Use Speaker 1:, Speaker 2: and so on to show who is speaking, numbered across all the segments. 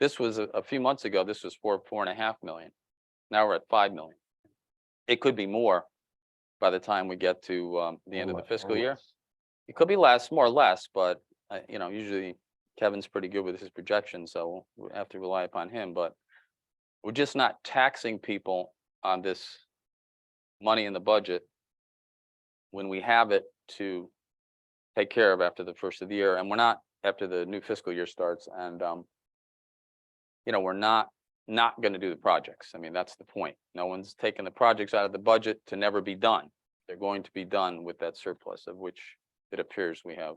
Speaker 1: This was a, a few months ago, this was four, four and a half million. Now we're at five million. It could be more by the time we get to, um,
Speaker 2: Oh
Speaker 1: the end of the fiscal year. It could be less, more or less, but, uh, you know, usually Kevin's pretty good with his projections, so we have to rely upon him, but we're just not taxing people on this money in the budget when we have it to take care of after the first of the year, and we're not after the new fiscal year starts, and, um, you know, we're not, not gonna do the projects. I mean, that's the point. No one's taking the projects out of the budget to never be done. They're going to be done with that surplus of which it appears we have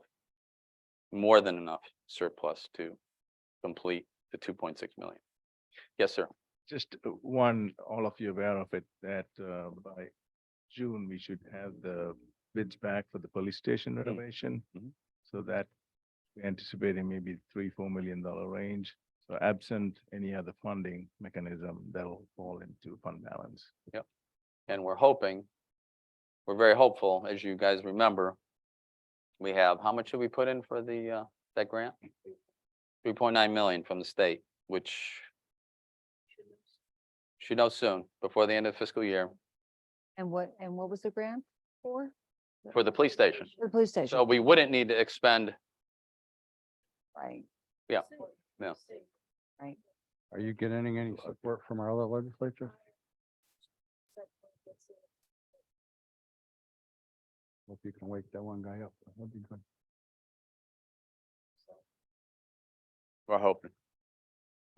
Speaker 1: more than enough surplus to complete the two point six million. Yes, sir.
Speaker 2: Just uh, one, all of you aware of it, that uh, by June, we should have the bids back for the police station renovation.
Speaker 1: Mhm.
Speaker 2: So that we're anticipating maybe three, four million dollar range. So absent any other funding mechanism, that'll fall into fund balance.
Speaker 1: and we're hoping, we're very hopeful, as you guys remember. We have, how much did we put in for the, uh, that grant? Three point nine million from the state, which should know soon, before the end of fiscal year,
Speaker 3: And what, and what was the grant for?
Speaker 1: for the police station.
Speaker 3: The police
Speaker 1: So
Speaker 3: station,
Speaker 1: we wouldn't need to expend,
Speaker 3: right?
Speaker 1: yeah, yeah.
Speaker 4: Are you getting any
Speaker 2: uh,
Speaker 4: support from our other legislature? Hope you can wake that one guy up. That'd be good.
Speaker 1: we're hoping.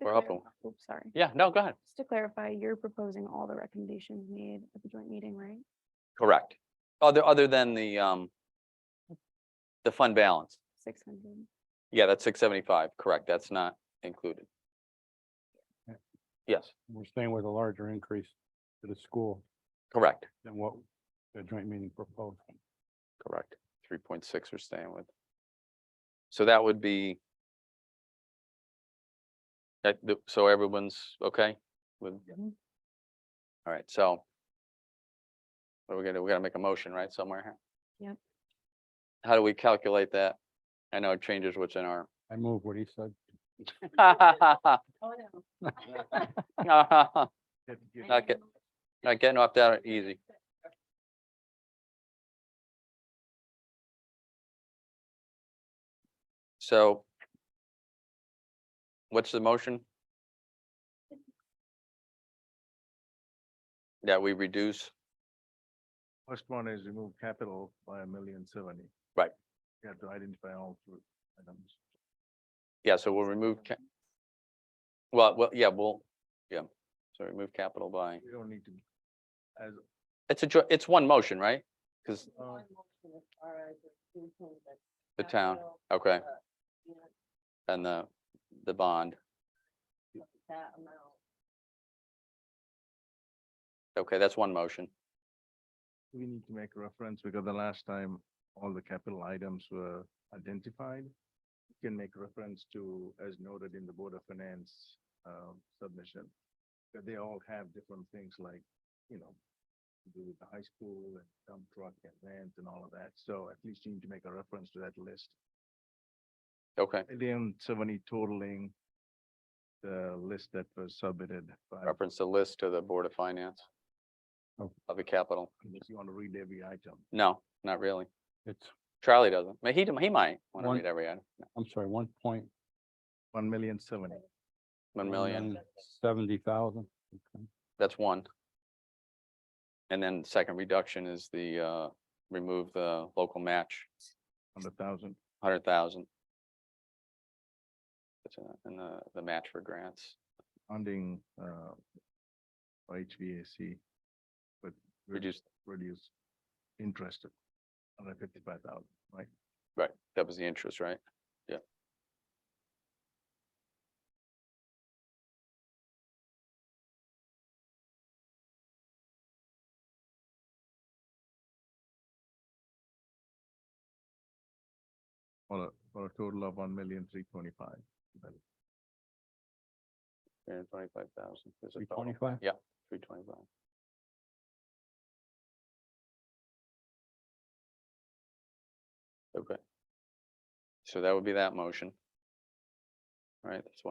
Speaker 5: To
Speaker 1: We're
Speaker 5: clarify-
Speaker 1: hoping.
Speaker 5: oh, Sorry.
Speaker 1: Yeah, no, go ahead.
Speaker 5: Just to clarify, you're proposing all the recommendations made at the joint meeting, right?
Speaker 1: Correct. Other, other than the, um, the fund balance.
Speaker 5: Six hundred.
Speaker 1: Yeah, that's six seventy-five, correct. That's not included.
Speaker 4: Yeah.
Speaker 1: Yes,
Speaker 4: We're staying with a larger increase to the school
Speaker 1: correct.
Speaker 4: than what the joint meeting proposed.
Speaker 1: Correct. Three point six we're staying with. So that would be. that- th- so everyone's okay with?
Speaker 3: Mhm.
Speaker 1: All right, so. What are we gonna, we gotta make a motion, right, somewhere here?
Speaker 5: Yep.
Speaker 1: How do we calculate that? I know it changes what's in our.
Speaker 4: I move what he said.
Speaker 3: Oh, no.
Speaker 1: Not
Speaker 2: Get-
Speaker 1: get- not getting off that easy. So. What's the motion? That we reduce,
Speaker 2: First one is remove capital by a million seventy.
Speaker 1: Right.
Speaker 2: You have to identify all three items.
Speaker 1: yeah, so we'll remove. ca- Well, well, yeah, we'll, yeah, so remove capital by,
Speaker 2: We don't need to, as,
Speaker 1: it's a, jo- it's one motion, right? Cause
Speaker 2: uh,
Speaker 1: the town, okay, and the, the bond, okay, that's one motion.
Speaker 2: we need to make reference because the last time all the capital items were identified. You Can make reference to as noted in the Board of Finance uh, submission. That they all have different things like, you know, to do with the high school and dump truck and vans and all of that. So at least you need to make a reference to that list.
Speaker 1: Okay,
Speaker 2: Million seventy totaling the list that was submitted by,
Speaker 1: reference the list to the Board of Finance
Speaker 4: Oh.
Speaker 1: of the capital.
Speaker 2: if you want to read every item.
Speaker 1: No, not really.
Speaker 4: It's,
Speaker 1: Charlie doesn't. May- He, he might want to
Speaker 4: One-
Speaker 1: read every item.
Speaker 4: I'm sorry, one point.
Speaker 2: One million seventy.
Speaker 1: One million,
Speaker 4: Seventy thousand. Okay.
Speaker 1: that's one. And then second reduction is the, uh, remove the local match,
Speaker 2: Hundred thousand.
Speaker 1: hundred thousand. And the, the match for grants.
Speaker 2: funding uh for HVAC, but re-
Speaker 1: Reduce,
Speaker 2: reduce interest of hundred fifty-five thousand, right?
Speaker 1: right, that was the interest, right? Yeah.
Speaker 2: For a, for a total of one million three twenty-five.
Speaker 1: Three hundred twenty-five thousand.
Speaker 4: Three twenty-five?
Speaker 1: Yeah, three twenty-five. Okay. So that would be that motion. All right, that's one.